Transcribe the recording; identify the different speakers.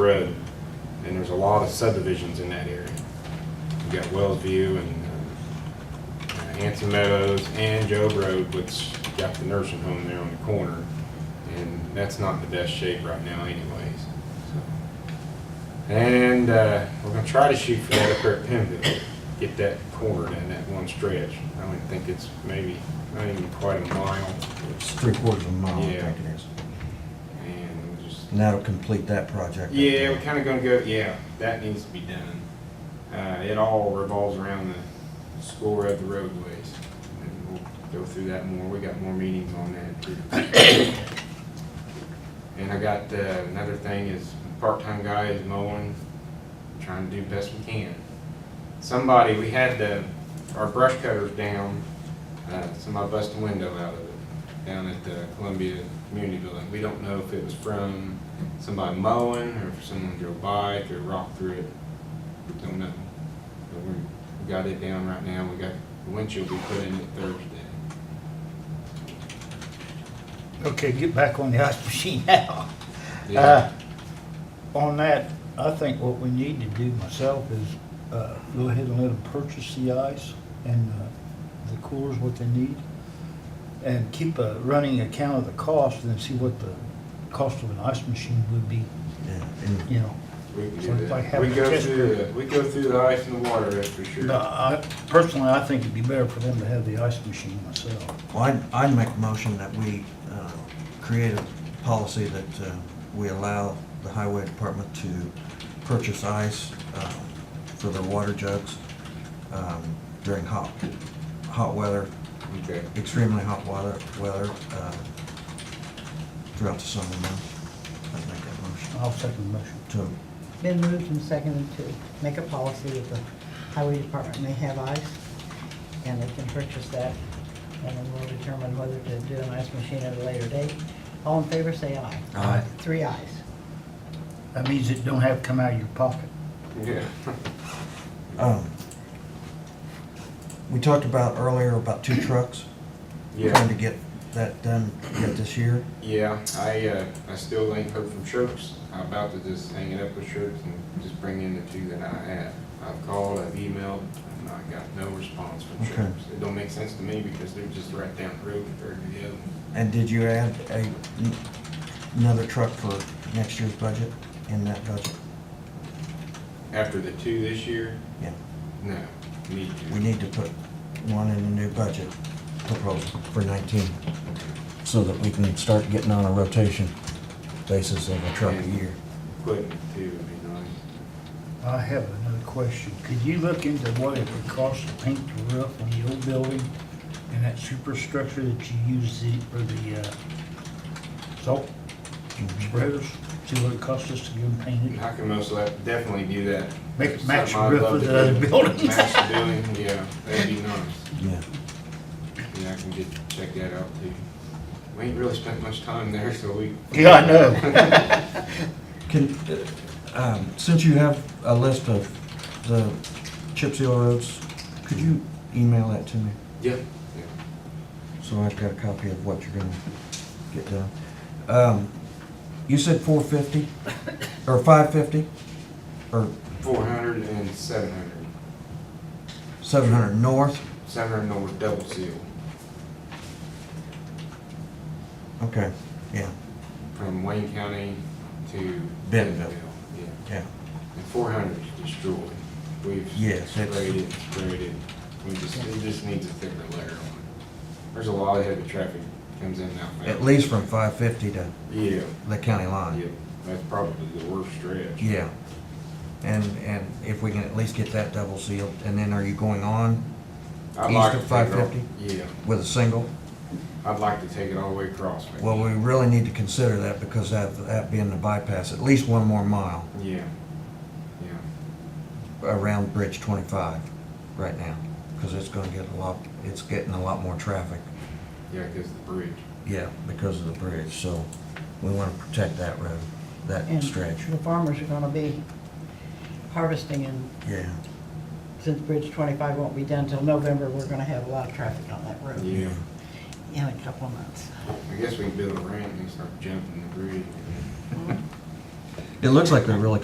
Speaker 1: Road, and there's a lot of subdivisions in that area. You've got Wells View and uh, Hanson Meadows and Job Road, which got the nursing home there on the corner. And that's not in the best shape right now anyways. so. And uh, we're gonna try to shoot for that up there at Pimville, get that corner and that one stretch. I only think it's maybe, not even quite a mile,
Speaker 2: It's three quarters of a mile, I
Speaker 1: Yeah.
Speaker 2: think it is.
Speaker 1: and we'll just
Speaker 2: And that'll complete that project.
Speaker 1: Yeah, we're kind of gonna go, yeah, that needs to be done. Uh, it all revolves around the school road, the roadways. And we'll go through that more. We got more meetings on that too. And I got, uh, another thing is part-time guy is mowing, trying to do best we can. Somebody, we had the, our brush cutters down, uh, somebody busted a window out of it down at the Columbia Community Building. We don't know if it was from somebody mowing or if someone drove by, if they rocked through it. We Don't know. But we we got it down right now. We got, the windshield we put in it Thursday.
Speaker 3: Okay, get back on the ice machine now.
Speaker 1: Yeah.
Speaker 3: Uh, On that, I think what we need to do myself is uh, go ahead and let them purchase the ice and uh, the coolers, what they need, and keep a running account of the cost and then see what the cost of an ice machine would be,
Speaker 2: Yeah, and
Speaker 3: you know.
Speaker 1: We can do
Speaker 3: So it's
Speaker 1: that.
Speaker 3: like
Speaker 1: We
Speaker 3: having a
Speaker 1: go
Speaker 3: test
Speaker 1: through, the- we go through the ice and the water, that's for sure.
Speaker 3: But I- Personally, I think it'd be better for them to have the ice machine myself.
Speaker 2: well, I'd, I'd make a motion that we uh, create a policy that uh, we allow the highway department to purchase ice um, for their water jugs um, during hot, hot weather,
Speaker 1: Okay.
Speaker 2: extremely hot weather, weather uh, throughout the summer months. I'd make that motion
Speaker 3: I'll second the motion.
Speaker 2: to,
Speaker 4: Been moved and seconded to make a policy that the highway department may have ice, and they can purchase that, and then we'll determine whether to do an ice machine at a later date. All in favor, say aye.
Speaker 2: Aye.
Speaker 4: Three ayes.
Speaker 3: That means it don't have to come out of your pocket.
Speaker 1: Yeah.
Speaker 2: um, we talked about earlier about two trucks. trying
Speaker 1: Yeah,
Speaker 2: to get that done yet this year.
Speaker 1: yeah, I, uh, I still ain't heard from Shirks. I'm about to just hang it up with Shirks and just bring in the two that I have. I've called, I've emailed, and I got no response from
Speaker 2: Okay.
Speaker 1: Shirks. It don't make sense to me because they're just right down the road compared to the other. one.
Speaker 2: And did you add a, another truck for next year's budget in that budget?
Speaker 1: After the two this year,
Speaker 2: Yeah,
Speaker 1: no, need
Speaker 2: we
Speaker 1: to.
Speaker 2: need to put one in the new budget proposal for nineteen, so that we can start getting on a rotation basis of a truck a year.
Speaker 1: Equipment too would be nice.
Speaker 3: I have another question. Could you look into what it would cost to paint the roof on the old building and that superstructure that you use the, for the, uh, salt spreaders? See what it costs us to get them painted?
Speaker 1: I can most likely definitely do that.
Speaker 3: Make it match
Speaker 1: Something I'd
Speaker 3: roof
Speaker 1: love
Speaker 3: with
Speaker 1: to
Speaker 3: the other
Speaker 1: do.
Speaker 3: building.
Speaker 1: Match the building, yeah, that'd be nice.
Speaker 2: Yeah,
Speaker 1: Yeah, I can get, check that out too. We ain't really spent much time there, so we.
Speaker 3: Yeah, I know.
Speaker 2: can, um, since you have a list of the chip seal roads, could you email that to me?
Speaker 1: Yeah.
Speaker 2: So I've got a copy of what you're gonna get done. Um, you said four fifty, or five fifty, or
Speaker 1: Four hundred and seven hundred.
Speaker 2: seven hundred north?
Speaker 1: Seven hundred over double seal
Speaker 2: Okay, yeah,
Speaker 1: from Wayne County to.
Speaker 2: Bentonville.
Speaker 1: Yeah,
Speaker 2: yeah.
Speaker 1: and four hundred is destroyed. We've.
Speaker 2: Yes, it's-
Speaker 1: Sprayed it, sprayed it. We just, it just needs a thicker layer on it. There's a lot of heavy traffic comes in now.
Speaker 2: At least from five fifty to
Speaker 1: Yeah,
Speaker 2: the county
Speaker 1: yeah,
Speaker 2: line.
Speaker 1: that's probably the worst stretch.
Speaker 2: Yeah. And, and if we can at least get that double sealed, and then are you going on
Speaker 1: I'd
Speaker 2: East
Speaker 1: like
Speaker 2: of
Speaker 1: to take it all-
Speaker 2: 550?
Speaker 1: Yeah,
Speaker 2: with a single?
Speaker 1: I'd like to take it all the way across. maybe.
Speaker 2: Well, we really need to consider that because that, that being the bypass, at least one more mile
Speaker 1: Yeah, yeah,
Speaker 2: around Bridge twenty-five right now, because it's gonna get a lot, it's getting a lot more traffic.
Speaker 1: yeah, because the bridge.
Speaker 2: Yeah, because of the bridge, so we want to protect that road, that
Speaker 4: And
Speaker 2: stretch.
Speaker 4: The farmers are gonna be harvesting, and
Speaker 2: Yeah,
Speaker 4: since Bridge twenty-five won't be done till November, we're gonna have a lot of traffic on that road
Speaker 1: Yeah,
Speaker 4: in a couple of months.
Speaker 1: I guess we can build a ramp and start jumping the bridge.
Speaker 2: It looks like they're really